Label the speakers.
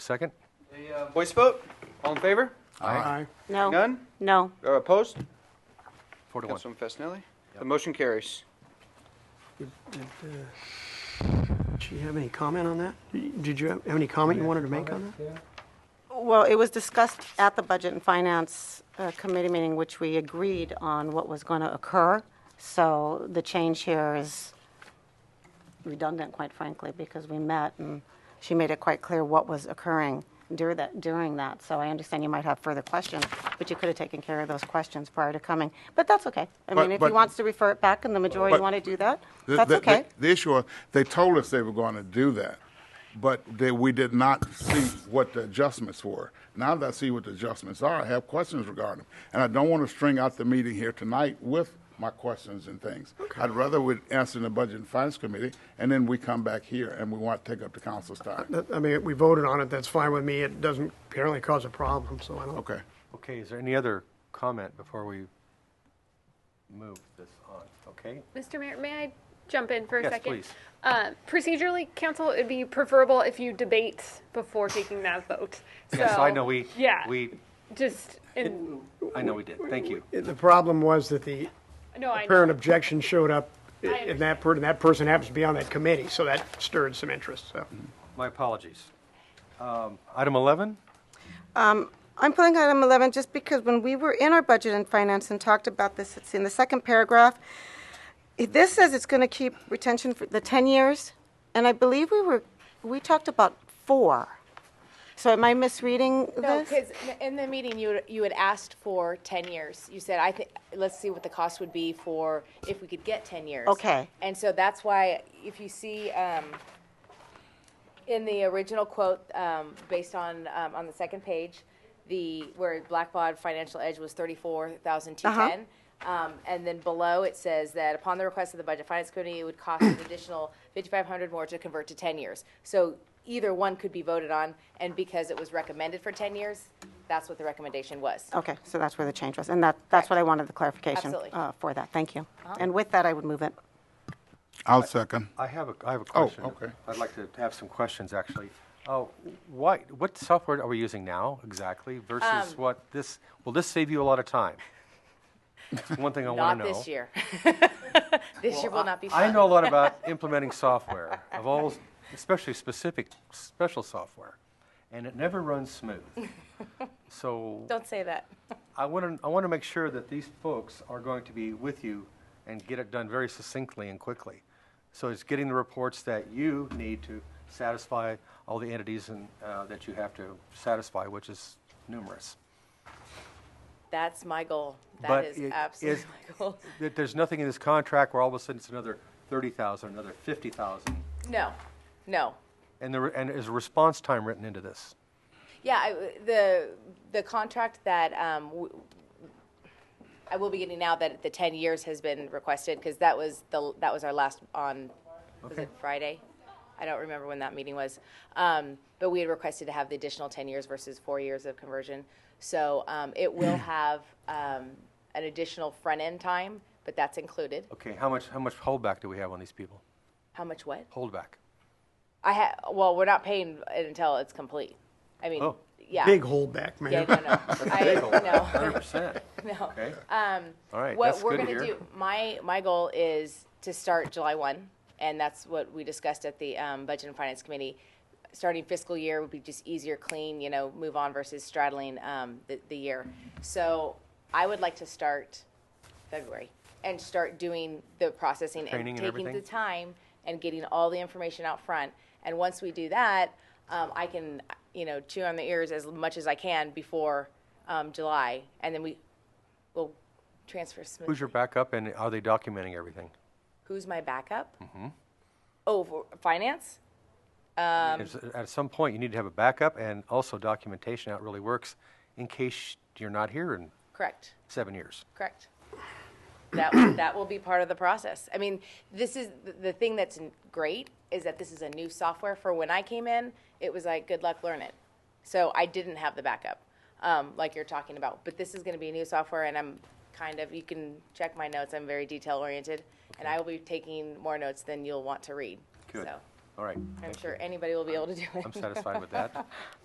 Speaker 1: Second?
Speaker 2: Uh, Voice vote? All in favor?
Speaker 3: Aye.
Speaker 4: No,
Speaker 2: None?
Speaker 4: no.
Speaker 2: Uh, Opposed?
Speaker 1: Four to one.
Speaker 2: Councilman Fasenelli? The motion carries.
Speaker 3: Did uh, she have any comment on that? Did you have have any comment you wanted to make on that?
Speaker 4: Well, it was discussed at the Budget and Finance uh, Committee meeting, which we agreed on what was going to occur. So the change here is redundant, quite frankly, because we met and she made it quite clear what was occurring during that, during that. So I understand you might have further questions, but you could have taken care of those questions prior to coming. But that's okay. I
Speaker 5: But-
Speaker 4: mean, if he
Speaker 5: but-
Speaker 4: wants to refer it back and the majority
Speaker 5: But-
Speaker 4: want to do that,
Speaker 5: The-
Speaker 4: that's
Speaker 5: the-
Speaker 4: okay.
Speaker 5: The, the issue, was, they told us they were going to do that, but they, we did not see what the adjustments were. Now that I see what the adjustments are, I have questions regarding them, and I don't want to string out the meeting here tonight with my questions and things. I'd rather we answer in the Budget and Finance Committee, and then we come back here, and we want to take up the council's
Speaker 4: Uh,
Speaker 5: time.
Speaker 3: That- I mean, we voted on it, that's fine with me. It doesn't apparently cause a problem, so I don't.
Speaker 5: Okay.
Speaker 1: Okay, is there any other comment before we move this on? Okay?
Speaker 6: Mr. Mayor, may I jump in for a
Speaker 1: Yes,
Speaker 6: second?
Speaker 1: please.
Speaker 6: Uh, procedurally, council, it'd be preferable if you debate before taking that vote.
Speaker 1: Yes,
Speaker 6: So,
Speaker 1: I know we,
Speaker 6: Yeah.
Speaker 1: we,
Speaker 6: Just, and,
Speaker 1: I know we did. Thank you.
Speaker 3: It- The problem was that the
Speaker 6: no, I.
Speaker 3: parent objection showed up, i-
Speaker 6: I
Speaker 3: and that, per- and that person happens to be on that committee, so that stirred some interest, so.
Speaker 1: My apologies. Um, Item 11?
Speaker 4: I'm pulling item 11 just because when we were in our budget and finance and talked about this, it's in the second paragraph. This says it's going to keep retention for the 10 years, and I believe we were, we talked about four. So am I misreading
Speaker 7: No,
Speaker 4: this?
Speaker 7: because in the meeting, you, had- you had asked for 10 years. You said, I think, let's see what the cost would be for, if we could get 10 years.
Speaker 4: Okay.
Speaker 7: And so that's why, if you see, um, in the original quote, um, based on, um, on the second page, the, where Blackbaud Financial Edge was 34,210.
Speaker 1: Uh-huh.
Speaker 7: Um, and then below, it says that upon the request of the Budget Finance Committee, it would cost an additional 5,500 more to convert to 10 years. So either one could be voted on, and because it was recommended for 10 years, that's what the recommendation was.
Speaker 4: Okay, so that's where the change was, and that, that's what I wanted the clarification
Speaker 7: Absolutely.
Speaker 4: uh, for that. Thank you. And with that, I would move it.
Speaker 5: I'll second.
Speaker 1: I have a, I have a question.
Speaker 5: okay.
Speaker 1: I'd like to have some questions, actually. Uh, Why, what software are we using now exactly
Speaker 7: Um,
Speaker 1: versus what this, will this save you a lot of time? That's one thing Oh, I want
Speaker 7: Not
Speaker 1: to know.
Speaker 7: this year. This year will not be fun.
Speaker 1: I know a lot about implementing software of all, especially specific, special software, and it never runs smooth. So
Speaker 7: Don't say that.
Speaker 1: I want to, I want to make sure that these folks are going to be with you and get it done very succinctly and quickly. So it's getting the reports that you need to satisfy all the entities and, uh, that you have to satisfy, which is numerous.
Speaker 7: That's my goal. That
Speaker 1: But
Speaker 7: is
Speaker 1: it is-
Speaker 7: absolutely my goal.
Speaker 1: That there's nothing in this contract where all of a sudden it's another thirty thousand, another fifty thousand.
Speaker 7: No, no.
Speaker 1: And there, and is response time written into this?
Speaker 7: Yeah, I- the, the contract that um, w- I will be getting now that the 10 years has been requested, because that was the, that was our last on, was it Friday? I don't remember when that meeting was. Um, But we had requested to have the additional 10 years versus four years of conversion. So um, it will have um, an additional front-end time, but that's included.
Speaker 1: Okay, how much, how much holdback do we have on these people?
Speaker 7: How much what?
Speaker 1: Holdback.
Speaker 7: I ha, well, we're not paying it until it's complete. I mean,
Speaker 1: Oh.
Speaker 7: yeah.
Speaker 3: Big holdback,
Speaker 7: Yeah,
Speaker 3: man.
Speaker 7: no, no. I, no.
Speaker 1: Hundred percent.
Speaker 7: No.
Speaker 1: Okay. All right,
Speaker 7: What
Speaker 1: that's
Speaker 7: we're
Speaker 1: good to
Speaker 7: gonna
Speaker 1: hear.
Speaker 7: do, my, my goal is to start July one, and that's what we discussed at the, um, Budget and Finance Committee. Starting fiscal year would be just easier, clean, you know, move on versus straddling, um, the, the year. So I would like to start February and start doing the processing
Speaker 1: Training
Speaker 7: and
Speaker 1: and
Speaker 7: taking the
Speaker 1: everything?
Speaker 7: time and getting all the information out front. And once we do that, um, I can, you know, chew on the ears as much as I can before, um, July. And then we will transfer smoothly.
Speaker 1: Who's your backup and are they documenting everything?
Speaker 7: Who's my backup? Oh, for finance? Um,
Speaker 1: Is- At some point, you need to have a backup and also documentation, how it really works, in case you're not here in
Speaker 7: Correct,
Speaker 1: seven years.
Speaker 7: correct. That, that will be part of the process. I mean, this is, the- the thing that's n- great is that this is a new software. For when I came in, it was like, good luck, learn it. So I didn't have the backup, um, like you're talking about. But this is gonna be new software and I'm kind of, you can check my notes, I'm very detail oriented. And I will be taking more notes than you'll want to read.
Speaker 1: Good.
Speaker 7: So
Speaker 1: All right.
Speaker 7: I'm sure anybody will be able to do it.
Speaker 1: I'm satisfied with that.